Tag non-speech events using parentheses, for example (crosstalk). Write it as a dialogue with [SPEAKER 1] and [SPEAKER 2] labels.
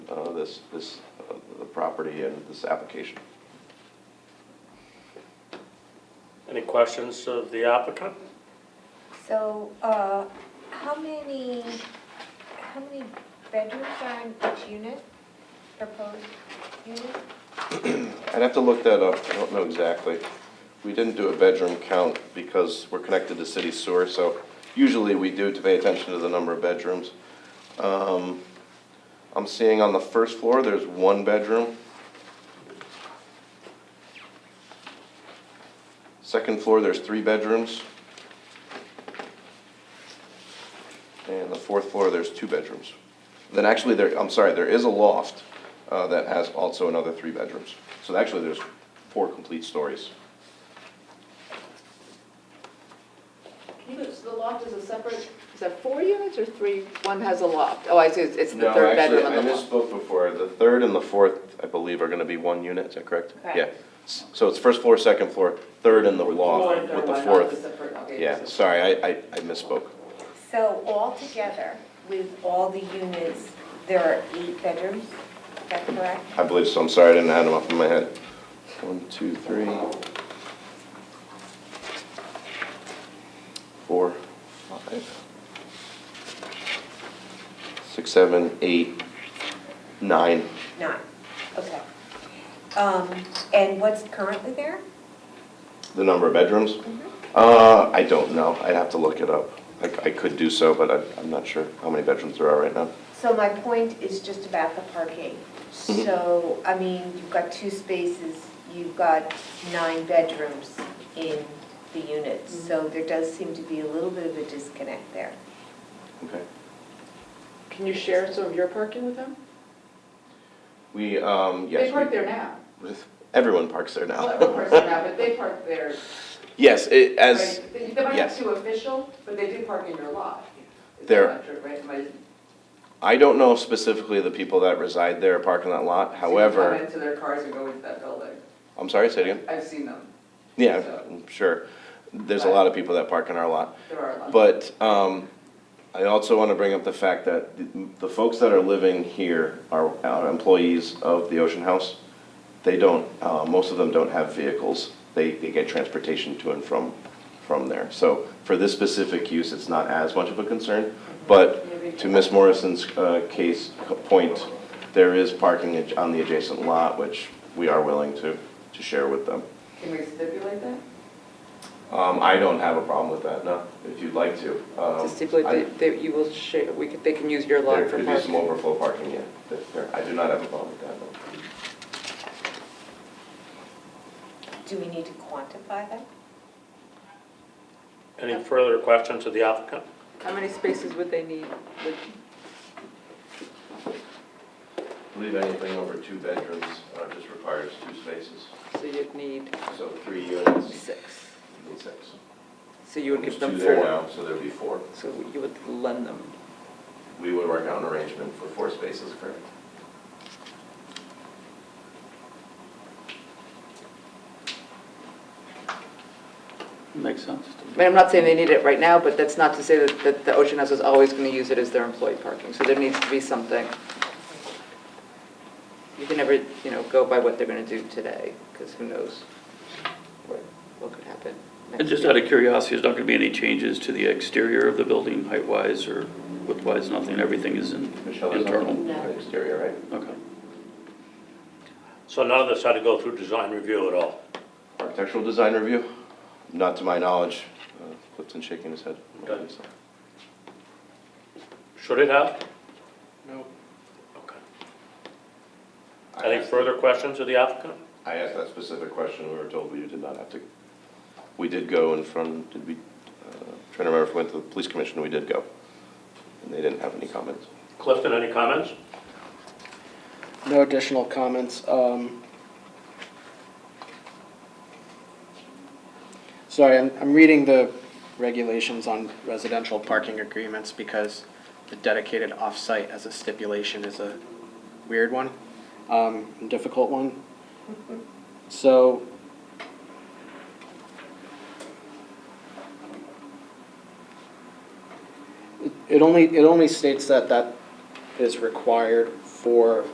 [SPEAKER 1] this, this, uh, the property and this application.
[SPEAKER 2] Any questions of the applicant?
[SPEAKER 3] So, uh, how many, how many bedrooms are in each unit, proposed unit?
[SPEAKER 1] I'd have to look that up, I don't know exactly. We didn't do a bedroom count because we're connected to city sewer, so usually we do to pay attention to the number of bedrooms. Um, I'm seeing on the first floor, there's one bedroom. Second floor, there's three bedrooms. And the fourth floor, there's two bedrooms. Then actually, there, I'm sorry, there is a loft uh, that has also another three bedrooms. So actually, there's four complete stories.
[SPEAKER 4] So the loft is a separate, is that four units or three? One has a loft. Oh, I see, it's it's the
[SPEAKER 1] No,
[SPEAKER 4] third
[SPEAKER 1] actually,
[SPEAKER 4] bedroom
[SPEAKER 1] I
[SPEAKER 4] on the loft.
[SPEAKER 1] misspoke before. The third and the fourth, I believe, are gonna be one unit, is that correct?
[SPEAKER 4] Correct.
[SPEAKER 1] Yeah. S- So it's first floor, second floor, third and the loft with the fourth. Yeah, sorry, I, I I misspoke.
[SPEAKER 3] So altogether, with all the units, there are eight bedrooms, is that correct?
[SPEAKER 1] I believe so, I'm sorry, I didn't add them up in my head. One, two, three. Four, five. Six, seven, eight, nine.
[SPEAKER 3] Nine, okay. Um, and what's currently there?
[SPEAKER 1] The number of bedrooms?
[SPEAKER 4] Mm-hmm.
[SPEAKER 1] Uh, I don't know, I'd have to look it up. I, I could do so, but I, I'm not sure how many bedrooms there are right now.
[SPEAKER 3] So my point is just about the parking. So, I mean, you've got two spaces, you've got nine bedrooms in the units. So there does seem to be a little bit of a disconnect there.
[SPEAKER 1] Okay.
[SPEAKER 4] Can you share some of your parking with them?
[SPEAKER 1] We, um, yes.
[SPEAKER 4] They park
[SPEAKER 1] we-
[SPEAKER 4] there now.
[SPEAKER 1] Everyone parks there now.
[SPEAKER 4] Well, of course they're now, but they park there.
[SPEAKER 1] (laughs) Yes, it, as,
[SPEAKER 4] right? They they might not
[SPEAKER 1] yes.
[SPEAKER 4] be too official, but they do park in your lot. Is that
[SPEAKER 1] They're-
[SPEAKER 4] not true, right? Am I-
[SPEAKER 1] I don't know specifically the people that reside there parking that lot,
[SPEAKER 4] I've seen
[SPEAKER 1] however,
[SPEAKER 4] them come into their cars and go into that building.
[SPEAKER 1] I'm sorry, say it again.
[SPEAKER 4] I've seen them.
[SPEAKER 1] Yeah, I'm sure. There's a lot of people that park in our lot.
[SPEAKER 4] There are a lot.
[SPEAKER 1] But um, I also want to bring up the fact that the- the folks that are living here are are employees of the Ocean House. They don't, uh, most of them don't have vehicles. They, they get transportation to and from, from there. So for this specific use, it's not as much of a concern. But to Ms. Morrison's uh, case, point, there is parking ad- on the adjacent lot, which we are willing to, to share with them.
[SPEAKER 4] Can we stipulate that?
[SPEAKER 1] Um, I don't have a problem with that, no, if you'd like to. Um,
[SPEAKER 5] To stipulate
[SPEAKER 1] I-
[SPEAKER 5] that, that you will share, we could, they can use your
[SPEAKER 1] There
[SPEAKER 5] lot for
[SPEAKER 1] could be some
[SPEAKER 5] parking.
[SPEAKER 1] overflow parking, yeah, that- there- I do not have a problem with that, no.
[SPEAKER 3] Do we need to quantify that?
[SPEAKER 2] Any further questions of the applicant?
[SPEAKER 5] How many spaces would they need? Would-
[SPEAKER 1] I believe anything over two bedrooms uh, just requires two spaces,
[SPEAKER 5] So you'd need
[SPEAKER 1] so three units,
[SPEAKER 5] six.
[SPEAKER 1] you need six.
[SPEAKER 5] So you would
[SPEAKER 1] There's
[SPEAKER 5] give
[SPEAKER 1] two
[SPEAKER 5] them
[SPEAKER 1] there
[SPEAKER 5] four.
[SPEAKER 1] now, so there'd be four.
[SPEAKER 5] So you would lend them.
[SPEAKER 1] We would work out an arrangement for four spaces, correct?
[SPEAKER 6] Makes sense
[SPEAKER 5] I
[SPEAKER 6] to me.
[SPEAKER 5] mean, I'm not saying they need it right now, but that's not to say that, that the Ocean House is always gonna use it as their employee parking. So there needs to be something. You can never, you know, go by what they're gonna do today, because who knows what could happen. next
[SPEAKER 6] And just
[SPEAKER 5] year.
[SPEAKER 6] out of curiosity, there's not going to be any changes to the exterior of the building height-wise or width-wise, nothing, everything is in-
[SPEAKER 1] Michelle, there's
[SPEAKER 6] internal?
[SPEAKER 1] nothing on the exterior, right?
[SPEAKER 6] Okay.
[SPEAKER 2] So none of this had to go through design review at all?
[SPEAKER 1] Architectural design review? Not to my knowledge. Uh, Clifton shaking his head.
[SPEAKER 2] Okay. Should it have?
[SPEAKER 6] No.
[SPEAKER 2] Okay.
[SPEAKER 1] I
[SPEAKER 2] Any
[SPEAKER 1] asked-
[SPEAKER 2] further questions of the applicant?
[SPEAKER 1] I asked that specific question, we were told we did not have to, we did go in front, did we, uh, trying to remember if we went to the police commission, we did go. And they didn't have any comments.
[SPEAKER 2] Clifton, any comments?
[SPEAKER 7] No additional comments. Um, Sorry, I'm, I'm reading the regulations on residential parking agreements because the dedicated off-site as a stipulation is a weird one, um, and difficult one. So. It- It only, it only states that that is required for